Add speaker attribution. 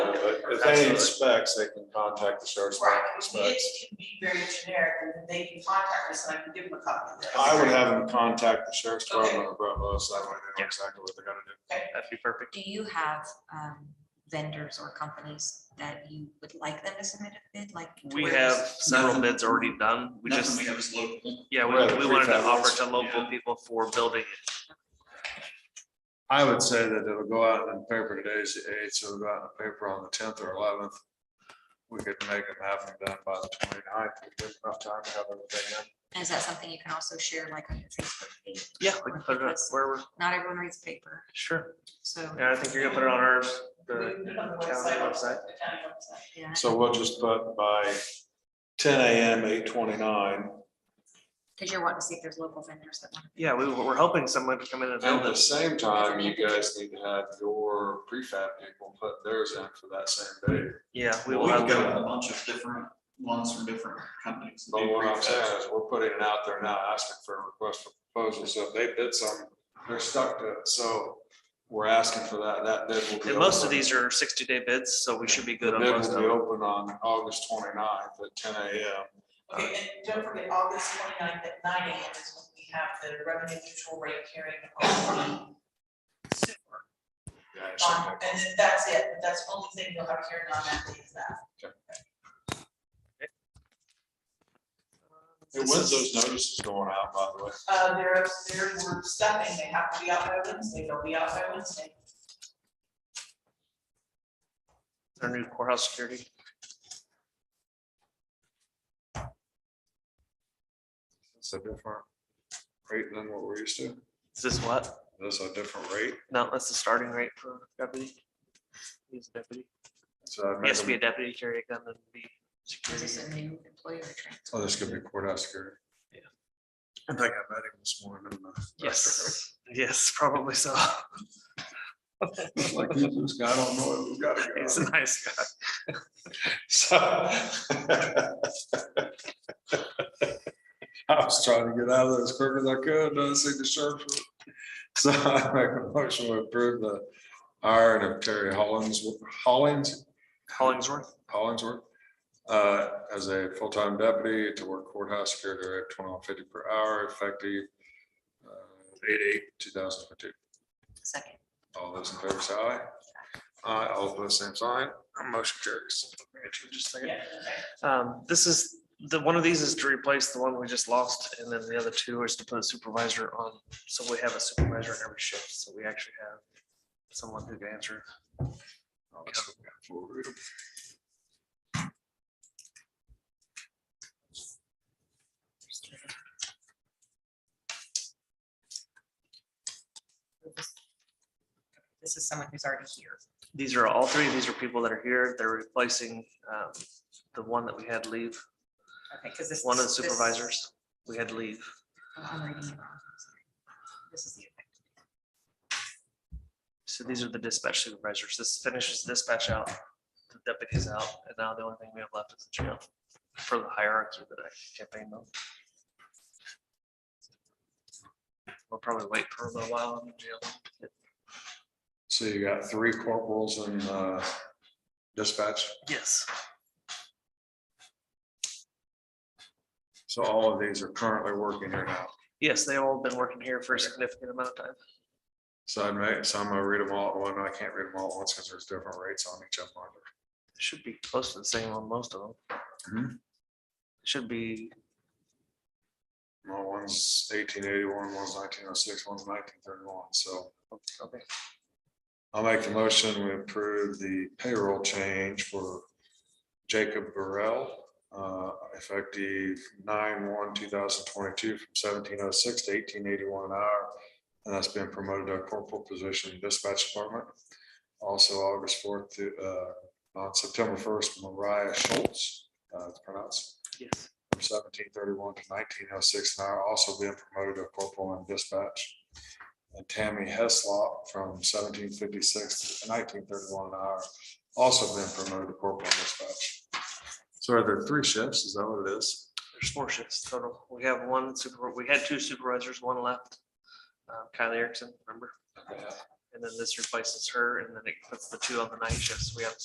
Speaker 1: But if they need specs, they can contact the sheriff's
Speaker 2: Right,
Speaker 1: department. with
Speaker 2: I mean, it
Speaker 1: specs.
Speaker 2: can be very generic, and then they can contact us, and I can give them a copy of that.
Speaker 1: I would have them contact the sheriff's
Speaker 2: Okay.
Speaker 1: department or Bravo, so that way they
Speaker 3: Yeah.
Speaker 1: know exactly what they're gonna do.
Speaker 3: That'd be perfect.
Speaker 4: Do you have um, vendors or companies that you would like them to submit a bid, like? to
Speaker 3: We
Speaker 4: where
Speaker 3: have
Speaker 4: this-
Speaker 3: several
Speaker 5: Nothing-
Speaker 3: bids already done. We
Speaker 5: Nothing
Speaker 3: just,
Speaker 5: we have is local.
Speaker 3: yeah, we,
Speaker 1: Right,
Speaker 3: we wanted to
Speaker 1: prefab
Speaker 3: offer
Speaker 1: ones.
Speaker 3: to local
Speaker 5: Yeah.
Speaker 3: people for building.
Speaker 1: I would say that it'll go out in the paper today's the eighth, so it'll go out in the paper on the tenth or eleventh. We could make them have them done by the 29th. ninth, give enough time to have everything in.
Speaker 4: Is that something you can also share like on your Facebook page?
Speaker 3: Yeah, we can put it up
Speaker 4: Because
Speaker 3: where we're,
Speaker 4: Not everyone reads paper,
Speaker 3: sure.
Speaker 4: so,
Speaker 3: Yeah, I think you're gonna put it on ours,
Speaker 2: We
Speaker 3: the
Speaker 2: can put it on the
Speaker 3: county
Speaker 2: website,
Speaker 3: website.
Speaker 2: The county website.
Speaker 4: yeah,
Speaker 1: So we'll just put by ten AM, eight twenty-nine.
Speaker 4: because you're wanting to see if there's local vendors that want.
Speaker 3: Yeah, we, we're hoping someone to come in and
Speaker 1: At
Speaker 3: build
Speaker 1: the
Speaker 3: this.
Speaker 1: same time, you guys need to have your prefab people put theirs in for that same day.
Speaker 3: Yeah, we
Speaker 5: We
Speaker 3: will
Speaker 5: have
Speaker 3: have,
Speaker 5: got a
Speaker 3: them.
Speaker 5: bunch of different ones from different companies. that
Speaker 1: But
Speaker 5: do
Speaker 1: what I'm
Speaker 5: prefabs.
Speaker 1: saying is, we're putting it out there now, asking for a request for proposal, so if they bid some, they're stuck to it, so we're asking for that, that bid will be.
Speaker 3: and most of
Speaker 1: open.
Speaker 3: these are sixty day bids, so we should be good
Speaker 1: The
Speaker 3: on
Speaker 1: bid
Speaker 3: most of
Speaker 1: will be
Speaker 3: them.
Speaker 1: open on August 29th at ten AM.
Speaker 2: Okay, and don't forget, August 29th at nine AM is when we have the revenue neutral rate hearing on the sewer.
Speaker 1: Yeah, I should
Speaker 2: Um,
Speaker 1: make-
Speaker 2: And then that's it, but that's the only thing you'll have hearing on that day is that.
Speaker 1: Hey, When's those notices going out, by the way?
Speaker 2: Uh, they're, they're, we're stuffing, they have to be out by Wednesday, they'll be out by Wednesday.
Speaker 3: Our new courthouse security.
Speaker 1: It's a different rate than what we're used to.
Speaker 3: Is this what?
Speaker 1: That's a different rate.
Speaker 3: No, that's the starting rate for deputy. He's a deputy.
Speaker 1: So I'd
Speaker 3: He
Speaker 1: make
Speaker 3: has to be
Speaker 1: them-
Speaker 3: a deputy, carry a gun and be
Speaker 4: Is
Speaker 3: security.
Speaker 4: this a new employee or a transfer?
Speaker 1: Oh, this could be courthouse security.
Speaker 3: Yeah.
Speaker 1: I think I met him this morning. in the
Speaker 3: Yes, yes, probably so.
Speaker 1: restaurant. Like, "Who's this guy, I don't know, we've got to go.
Speaker 3: He's a nice guy.
Speaker 1: So. I was trying to get out of there as quick as I could, not see the sheriff. So I make a motion to approve the hiring of Terry Hollins, Hollins,
Speaker 3: Hollingsworth.
Speaker 1: Hollingsworth. Uh, as a full-time deputy to work courthouse security at twenty-one fifty per hour effective. uh, Eight eight two thousand twenty-two.
Speaker 4: Second.
Speaker 1: All those in favor say aye. Aye, all opposed, same sign. Motion carries.
Speaker 3: Just a second.
Speaker 2: Yeah, okay.
Speaker 3: Um, this is, the, one of these is to replace the one we just lost, and then the other two is to put a supervisor on. So we have a supervisor in every shift, so we actually have someone who can answer.
Speaker 1: Oh, that's what we got for you.
Speaker 4: This is someone who's already here.
Speaker 3: These are, all three of these are people that are here. They're replacing, um, the one that we had leave,
Speaker 4: Okay, because this.
Speaker 3: one of the
Speaker 4: this-
Speaker 3: supervisors we had leave.
Speaker 4: oh, I'm reading it wrong, I'm sorry. This is the effect.
Speaker 3: So these are the dispatch supervisors. This finishes dispatch out, the deputies out, and now the only thing we have left is the sheriff for the hierarchy that I campaign on. We'll probably wait for a little while in the jail.
Speaker 1: So you got three corporals and uh, dispatch.
Speaker 3: Yes.
Speaker 1: So all of these are currently working here now.
Speaker 3: Yes, they've all been working here for a significant amount of time.
Speaker 1: So I may, so I'm gonna read them all at one. I can't read them all at once because there's different rates on each of them.
Speaker 3: Should be close to the same on most of
Speaker 1: Mhm.
Speaker 3: them. Should be,
Speaker 1: Well, one's eighteen eighty-one, one's nineteen oh six, one's nineteen thirty-one. So
Speaker 3: okay.
Speaker 1: I'll make the motion. We approve the payroll change for Jacob Burrell, uh, effective nine one two thousand twenty-two from seventeen oh six to eighteen eighty-one an hour. And that's been promoted to a corporal position in dispatch department. Also August fourth to, uh, on September first, Mariah Schultz, uh, it's pronounced,
Speaker 3: yes.
Speaker 1: from seventeen thirty-one to nineteen oh six an hour, also being promoted to corporal in dispatch. And Tammy Heslop from seventeen fifty-six to nineteen thirty-one an hour, also been promoted to corporal in dispatch. So are there three shifts? Is that what it is?
Speaker 3: There's four shifts total. We have one super, we had two supervisors, one left. Uh, Kylie Erickson, remember? And then this replaces her, and then it puts the two on the night shifts. We have